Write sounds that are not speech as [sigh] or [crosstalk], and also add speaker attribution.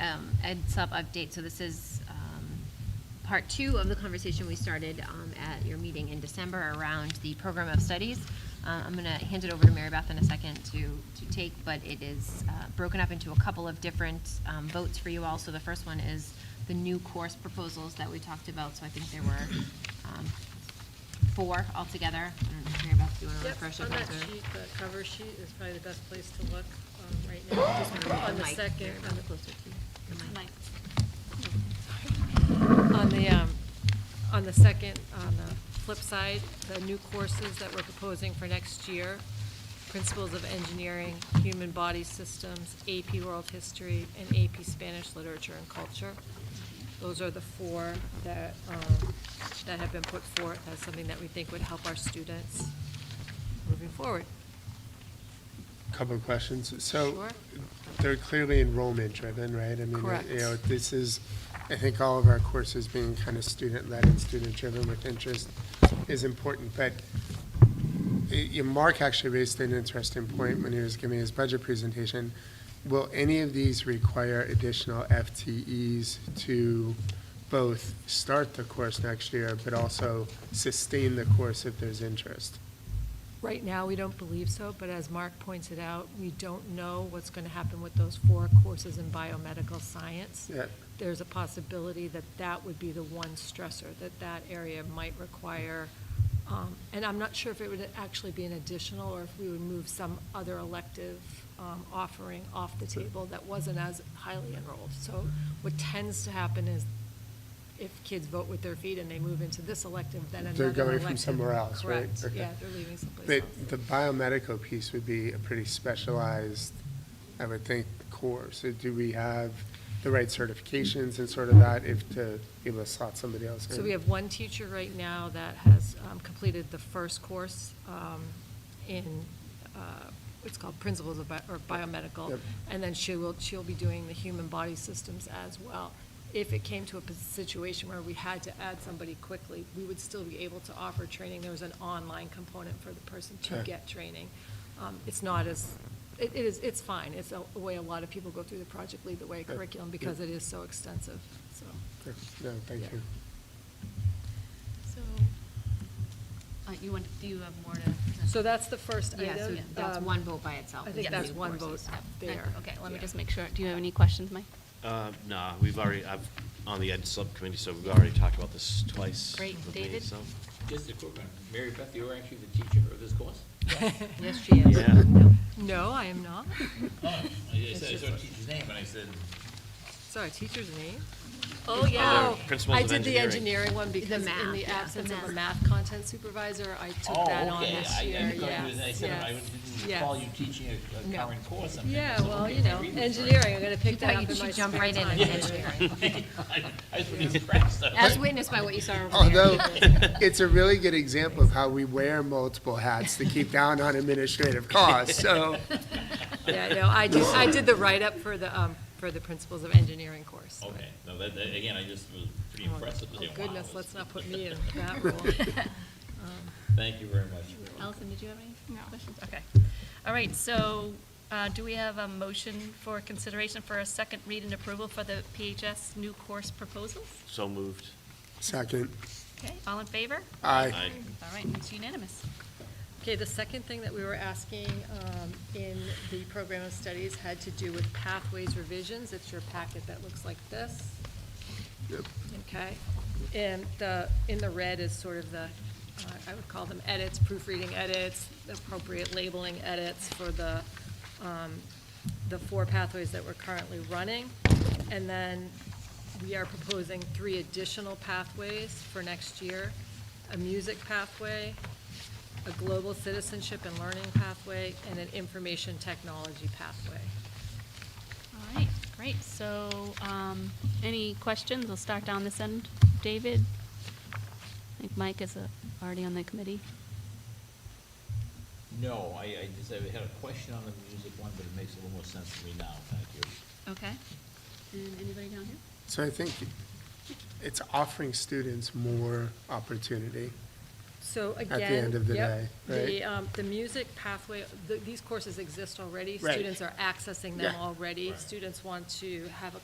Speaker 1: um, Ed Sup update. So this is um, part two of the conversation we started um, at your meeting in December around the program of studies. Uh, I'm going to hand it over to Mary Beth in a second to, to take, but it is uh, broken up into a couple of different um, votes for you all. So the first one is the new course proposals that we talked about. So I think there were um, four altogether. I don't know, if Mary Beth, do you want to
Speaker 2: Yep,
Speaker 1: refresh?
Speaker 2: on
Speaker 1: everyone's
Speaker 2: that
Speaker 1: memory?
Speaker 2: sheet, the cover sheet is probably the best place to look um, right now. On the
Speaker 1: Mike,
Speaker 2: second,
Speaker 1: Mary Beth,
Speaker 2: on the-
Speaker 1: closer to the mic.
Speaker 2: on the, um, on the second, on the flip side, the new courses that we're proposing for next year, Principles of Engineering, Human Body Systems, AP World History, and AP Spanish Literature and Culture. Those are the four that, um, that have been put forth as something that we think would help our students moving forward.
Speaker 3: Couple of questions. So
Speaker 2: Sure.
Speaker 3: they're clearly enrollment driven, right? I mean,
Speaker 2: Correct.
Speaker 3: You know, this is, I think all of our courses being kind of student-led and student-driven with interest is important. But y- y- Mark actually raised an interesting point when he was giving his budget presentation. Will any of these require additional FTEs to both start the course next year, but also sustain the course if there's interest?
Speaker 2: Right now, we don't believe so, but as Mark pointed out, we don't know what's going to happen with those four courses in biomedical science.
Speaker 3: Yeah.
Speaker 2: There's a possibility that that would be the one stressor, that that area might require, um, and I'm not sure if it would actually be an additional, or if we would move some other elective um, offering off the table that wasn't as highly enrolled. So what tends to happen is if kids vote with their feet and they move into this elective, then another
Speaker 3: They're
Speaker 2: elective.
Speaker 3: going from somewhere else, right?
Speaker 2: Correct,
Speaker 3: Okay.
Speaker 2: yeah, they're leaving someplace
Speaker 3: But
Speaker 2: else.
Speaker 3: the biomedical piece would be a pretty specialized, I would think, course. So do we have the right certifications and sort of that if to be able to slot somebody else in?
Speaker 2: So we have one teacher right now that has um, completed the first course um, in, uh, it's called Principles of Bi- or Biomedical.
Speaker 3: Yep.
Speaker 2: And then she will, she'll be doing the human body systems as well. If it came to a pos- situation where we had to add somebody quickly, we would still be able to offer training. There was an online component for the person to
Speaker 3: Sure.
Speaker 2: get training. Um, It's not as, it it is, it's fine. It's a a way a lot of people go through the Project Lead the Way
Speaker 3: Yep.
Speaker 2: curriculum because
Speaker 3: Yep.
Speaker 2: it is so extensive, so.
Speaker 3: No, thank
Speaker 2: Yeah.
Speaker 3: you.
Speaker 4: So, uh, you want, do you have more to?
Speaker 2: So that's the first item.
Speaker 1: Yeah, so that's
Speaker 2: Um,
Speaker 1: one vote by itself.
Speaker 2: I
Speaker 1: is
Speaker 2: think
Speaker 1: the
Speaker 2: that's
Speaker 1: new
Speaker 2: one vote
Speaker 1: courses. Yep.
Speaker 2: there.
Speaker 4: Okay, let me
Speaker 2: Yeah.
Speaker 4: just make sure. Do you have any questions, Mike?
Speaker 5: Uh, Nah, we've already, I've, on the Ed Subcommittee, so we've already talked about this twice.
Speaker 4: Great.
Speaker 5: with me,
Speaker 4: David?
Speaker 5: so-
Speaker 6: Just a quick one. Mary Beth, you are actually the teacher of this course?
Speaker 1: Yes, she is.
Speaker 5: Yeah.
Speaker 2: No, I am not.
Speaker 6: I said, I saw a teacher's name, and I said,
Speaker 2: Sorry, teacher's name?
Speaker 5: Oh, yeah.
Speaker 3: Uh,
Speaker 2: Oh,
Speaker 5: Principles of
Speaker 2: I did the
Speaker 5: engineering.
Speaker 2: engineering one because in
Speaker 1: math,
Speaker 2: the
Speaker 1: yeah,
Speaker 2: absence
Speaker 1: the
Speaker 2: of a
Speaker 1: math.
Speaker 2: math content supervisor, I
Speaker 6: oh,
Speaker 2: took that on
Speaker 6: okay.
Speaker 2: this
Speaker 6: I-
Speaker 2: year,
Speaker 6: I
Speaker 2: yes,
Speaker 6: thought you was- I said, I
Speaker 2: yes,
Speaker 6: didn't
Speaker 2: yes.
Speaker 6: recall you teaching a- a
Speaker 2: No.
Speaker 6: current course. I'm thinking,
Speaker 2: Yeah,
Speaker 6: so,
Speaker 2: well,
Speaker 6: okay,
Speaker 2: you
Speaker 6: I
Speaker 2: know,
Speaker 6: read this right.
Speaker 2: engineering, I'm gonna pick that
Speaker 1: Thought
Speaker 2: up in
Speaker 1: you
Speaker 2: my
Speaker 1: should
Speaker 2: spare
Speaker 1: jump right in
Speaker 2: time.
Speaker 1: and engineering.
Speaker 2: [laughs]
Speaker 6: I I was pretty impressed. [laughs] I was
Speaker 1: As
Speaker 6: like,
Speaker 1: witnessed by what you saw over
Speaker 3: Although, [laughs]
Speaker 1: there.
Speaker 3: Oh, it's a really good example of how we wear multiple hats to keep down on administrative costs,
Speaker 2: [laughs]
Speaker 3: so.
Speaker 2: [laughs] Yeah, no, I do, I did the write-up for the, um, for the principles of engineering course. but-
Speaker 6: Okay, no, that, that- again, I just was pretty
Speaker 2: Oh,
Speaker 6: impressed. with
Speaker 2: oh
Speaker 6: the wow,
Speaker 2: goodness,
Speaker 6: that's-
Speaker 2: let's not put me in that role.
Speaker 6: [laughs]
Speaker 2: [laughs] Um,
Speaker 6: Thank you very much.
Speaker 4: Allison, did you have any questions?
Speaker 7: Okay. All right, so uh, do we have a motion for consideration for a second read and approval for the PHS new course proposals?
Speaker 5: So moved.
Speaker 3: Second,
Speaker 7: Okay, all in favor?
Speaker 3: aye.
Speaker 5: I
Speaker 7: All right, it's unanimous.
Speaker 2: Okay, the second thing that we were asking um, in the program of studies had to do with pathways revisions. It's your packet that looks like this.
Speaker 3: Yep.
Speaker 2: Okay, and the, in the red is sort of the, uh, I would call them edits, proofreading edits, appropriate labeling edits for the, um, the four pathways that we're currently running. And then we are proposing three additional pathways for next year. A music pathway, a global citizenship and learning pathway, and an information technology pathway.
Speaker 4: All right, great. So, um, any questions? We'll start down this end. David? I think Mike is uh, already on the committee.
Speaker 6: No, I, I just, I had a question on the music one, but it makes a little more sense to me now. Thank you.
Speaker 4: Okay. And anybody down here?
Speaker 3: So I think it's offering students more opportunity.
Speaker 2: So again.
Speaker 3: end of the
Speaker 2: yep,
Speaker 3: day, right?
Speaker 2: The, um, the music pathway, th- these courses exist already.
Speaker 3: Right.
Speaker 2: Students are accessing them
Speaker 3: Yeah.
Speaker 2: already.
Speaker 6: Right.
Speaker 2: Students want to have a